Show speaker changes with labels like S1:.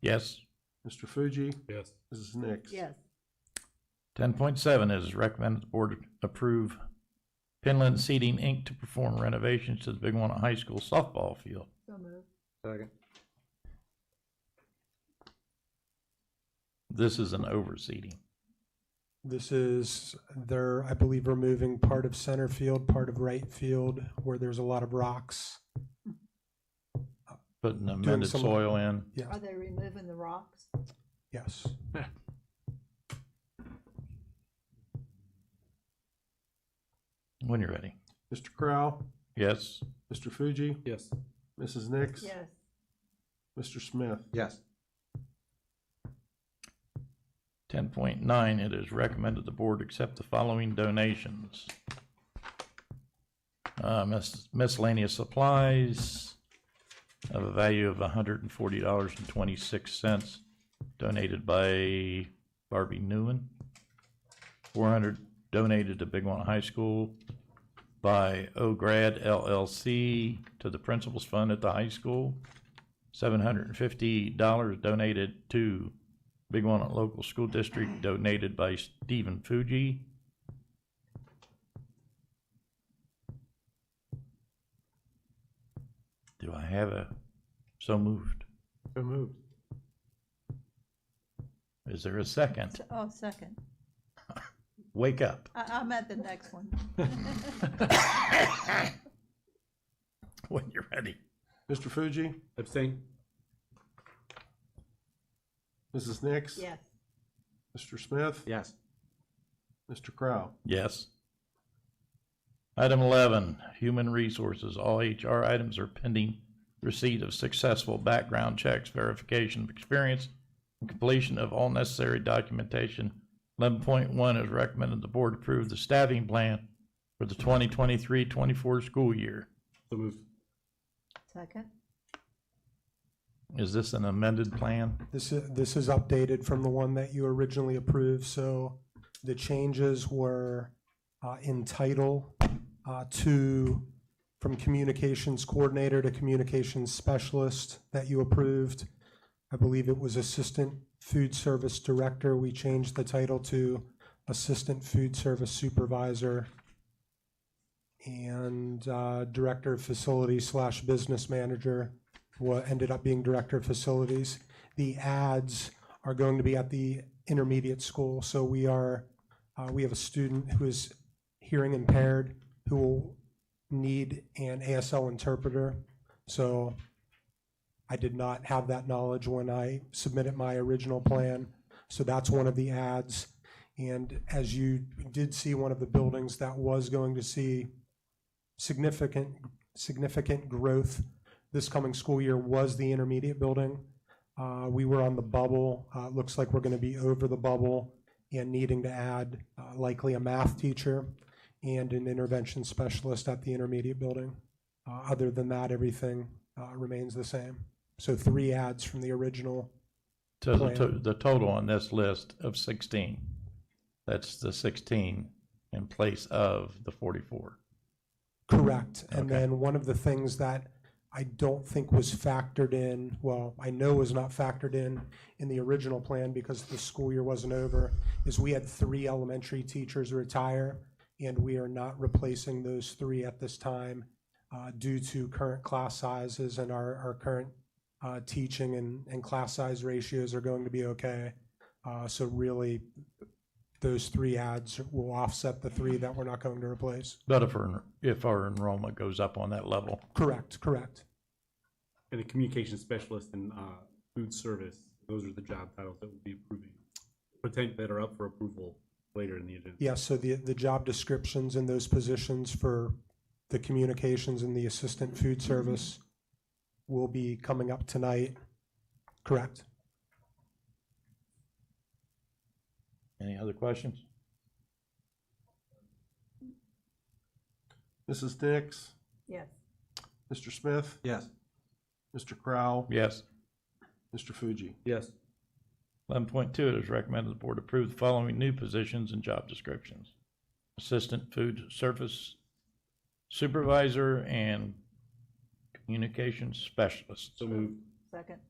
S1: Yes.
S2: Mr. Fuji,
S3: Yes.
S2: Mrs. Nix.
S4: yes,
S1: Ten point seven is recommended the board approve Pinland Seating Inc. to perform renovations to the Big One High School softball field.
S4: so moved,
S3: Second.
S1: This is an overseating.
S5: This is, they're, I believe, removing part of center field, part of right field, where there's a lot of rocks.
S1: Putting amended
S5: some-
S1: soil in.
S5: Yes,
S4: are they removing the rocks?
S5: yes.
S1: When you're ready.
S2: Mr. Crowe,
S1: Yes.
S2: Mr. Fuji,
S3: Yes.
S2: Mrs. Nix.
S4: Yes,
S2: Mr. Smith.
S3: Yes.
S1: Ten point nine, it is recommended the board accept the following donations. Uh, mis- miscellaneous supplies of a value of hundred and forty dollars and twenty-six cents donated by Barbie Newman. Four hundred donated to Big One High School by Ograd LLC to the Principals Fund at the high school. Seven hundred and fifty dollars donated to Big one at local school district donated by Stephen Fuji. Do I have a, so moved.
S2: So moved.
S1: Is there a second?
S4: So- oh, second,
S1: Wake up.
S4: I, I'm at the next one.
S1: When you're ready.
S2: Mr. Fuji,
S3: Abstain.
S2: Mrs. Nix.
S4: Yes,
S2: Mr. Smith.
S3: Yes.
S2: Mr. Crowe.
S1: Yes. Item eleven, human resources. All HR items are pending receipt of successful background checks, verification of experience, and completion of all necessary documentation. Eleven point one is recommended the board approve the staffing plan for the 2023-24 school year.
S3: So moved.
S4: second,
S1: Is this an amended plan?
S5: This is, this is updated from the one that you originally approved, so the changes were uh, in title uh, to, from communications coordinator to communications specialist that you approved. I believe it was assistant food service director. We changed the title to assistant food service supervisor and uh, director of facilities slash business manager, what ended up being director of facilities the ads are going to be at the intermediate school. So we are, uh, we have a student who is hearing impaired who will need an ASL interpreter. So I did not have that knowledge when I submitted my original plan. So that's one of the ads. And as you did see, one of the buildings that was going to see significant, significant growth this coming school year was the intermediate building. Uh, We were on the bubble. Uh, It looks like we're going to be over the bubble and needing to add uh, likely a math teacher and an intervention specialist at the intermediate building. Uh, Other than that, everything uh, remains the same. So three ads from the original.
S1: So the,
S5: Plan.
S1: to- the total on this list of sixteen, that's the sixteen in place of the forty-four.
S5: Correct. And
S1: Okay.
S5: then one of the things that I don't think was factored in, well, I know was not factored in in the original plan because the school year wasn't over, is we had three elementary teachers retire, and we are not replacing those three at this time uh, due to current class sizes and our, our current uh, teaching and, and class size ratios are going to be okay. Uh, So really, those three ads will offset the three that we're not going to replace.
S1: But if our, if our enrollment goes up on that level,
S5: Correct, correct.
S3: And a communication specialist and uh, food service, those are the job titles that we'll be approving. Potent that are up for approval later in the agenda.
S5: Yeah, so the, the job descriptions in those positions for the communications and the assistant food service will be coming up tonight, correct?
S1: any other questions?
S2: Mrs. Nix.
S4: yes,
S2: Mr. Smith.
S3: Yes.
S2: Mr. Crowe.
S1: Yes.
S2: Mr. Fuji.
S3: Yes.
S1: Eleven point two, it is recommended the board approve the following new positions and job descriptions. Assistant Food Service Supervisor and Communications Specialist.
S3: So moved.
S4: second,